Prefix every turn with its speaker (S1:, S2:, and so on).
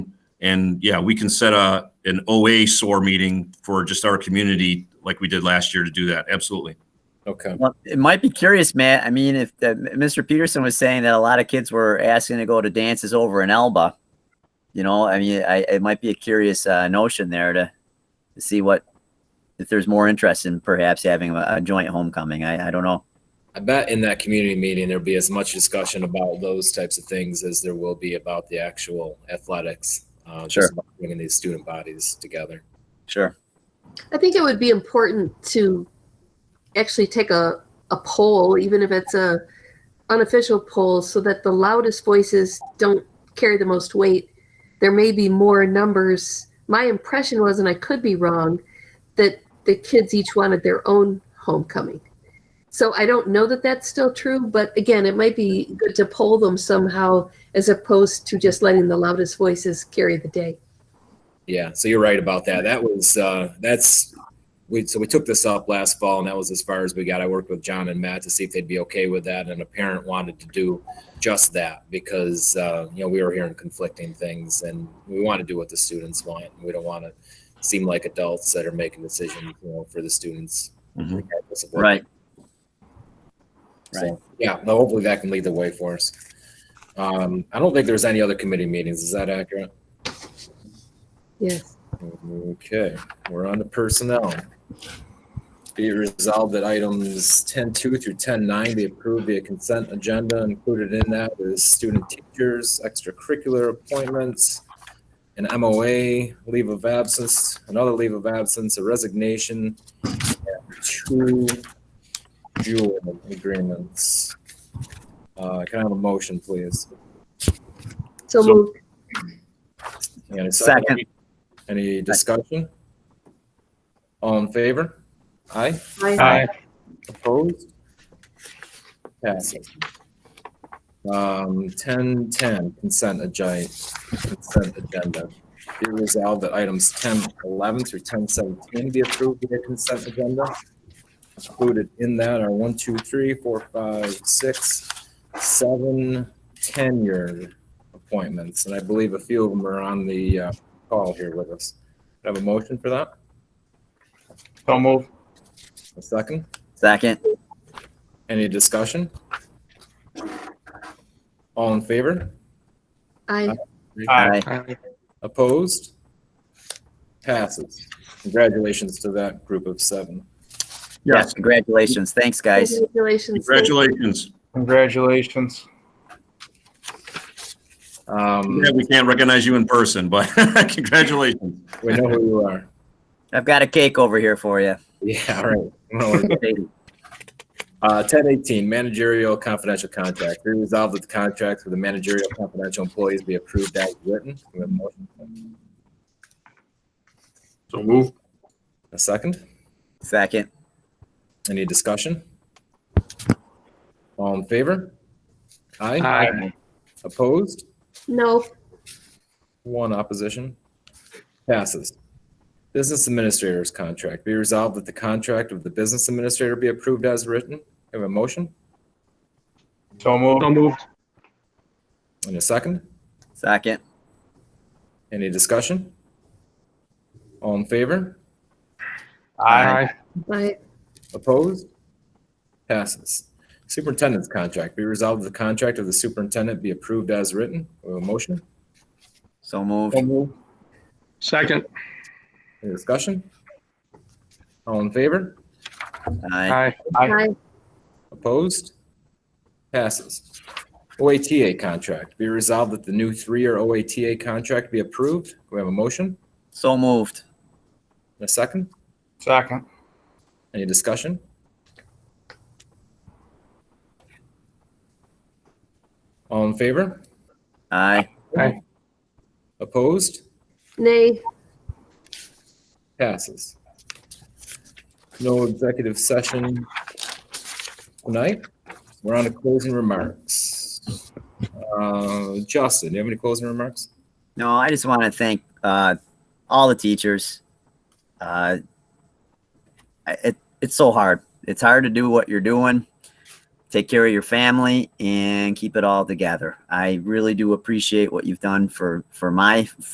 S1: And yeah, we can set a, an OA SOAR meeting for just our community like we did last year to do that. Absolutely.
S2: Okay.
S3: Well, it might be curious, Matt. I mean, if the, Mr. Peterson was saying that a lot of kids were asking to go to dances over in Elba, you know, I mean, I, it might be a curious uh, notion there to, to see what if there's more interest in perhaps having a, a joint homecoming. I, I don't know.
S2: I bet in that community meeting, there'll be as much discussion about those types of things as there will be about the actual athletics. Uh,
S3: Sure.
S2: Just about bringing these student bodies together.
S3: Sure.
S4: I think it would be important to actually take a, a poll, even if it's a unofficial poll, so that the loudest voices don't carry the most weight. There may be more numbers. My impression was, and I could be wrong, that the kids each wanted their own homecoming. So I don't know that that's still true, but again, it might be good to poll them somehow as opposed to just letting the loudest voices carry the day.
S2: Yeah. So you're right about that. That was, uh, that's, we, so we took this up last fall and that was as far as we got. I worked with John and Matt to see if they'd be okay with that. And a parent wanted to do just that because, uh, you know, we were hearing conflicting things and we want to do what the students want. We don't want to seem like adults that are making decisions, you know, for the students.
S1: Mhm.
S2: regardless of what
S3: Right.
S2: So, yeah, no, hopefully that can lead the way for us. Um, I don't think there's any other committee meetings. Is that accurate?
S4: Yes.
S2: Okay, we're on to personnel. Be it resolved that items ten two through ten nine be approved via consent agenda. Included in that is student teachers, extracurricular appointments, an MOA, leave of absence, another leave of absence, a resignation, and two dual agreements. Uh, can I have a motion, please?
S4: So
S1: So-
S4: moved.
S2: And a
S3: Second.
S2: Any discussion? All in favor? Aye.
S4: Aye.
S2: Opposed? Passes. Um, ten, ten, consent agenda, consent agenda. Be it resolved that items ten, eleven through ten, seventeen be approved via consent agenda. Included in that are one, two, three, four, five, six, seven tenure appointments, and I believe a few of them are on the, uh, call here with us. Do I Have a motion for that?
S5: So move.
S2: A second?
S3: Second.
S2: Any discussion? All in favor?
S4: Aye.
S3: Aye.
S2: Opposed? Passes. Congratulations to that group of seven.
S3: Yes. Congratulations. Thanks, guys.
S4: Congratulations.
S1: Congratulations.
S5: Congratulations.
S2: Um,
S1: Yeah, we can't recognize you in person, but congratulations.
S2: we know who you are.
S3: I've got a cake over here for you.
S2: Yeah, all right. No worries. Uh, ten eighteen, managerial confidential contract. Be resolved that the contracts for the managerial confidential employees be approved as written. We have a motion.
S5: So move.
S2: A second?
S3: Second.
S2: Any discussion? All in favor? Aye.
S5: Aye.
S2: Opposed?
S4: No,
S2: One opposition. Passes. Business Administrator's Contract. Be resolved that the contract of the business administrator be approved as written. Have a motion
S5: So move. So move.
S2: and a second.
S3: Second.
S2: Any discussion? All in favor?
S5: Aye.
S4: aye.
S2: Opposed? Passes. Superintendent's Contract. Be resolved that the contract of the superintendent be approved as written. Have a motion?
S3: So move.
S5: Second.
S2: Any discussion? All in favor?
S3: Aye.
S5: Aye. Aye.
S4: Aye.
S2: Opposed? Passes. OATA contract. Be resolved that the new three-year OATA contract be approved. Do we have a motion?
S3: So moved.
S2: And a second?
S5: Second.
S2: Any discussion? All in favor?
S3: Aye.
S2: Opposed?
S4: Nay,
S2: Passes. No executive session tonight. We're on to closing remarks. Uh, Justin, do you have any closing remarks?
S3: No, I just want to thank uh, all the teachers. Uh, I- it, it's so hard. It's hard to do what you're doing, take care of your family, and keep it all together. I really do appreciate what you've done for for my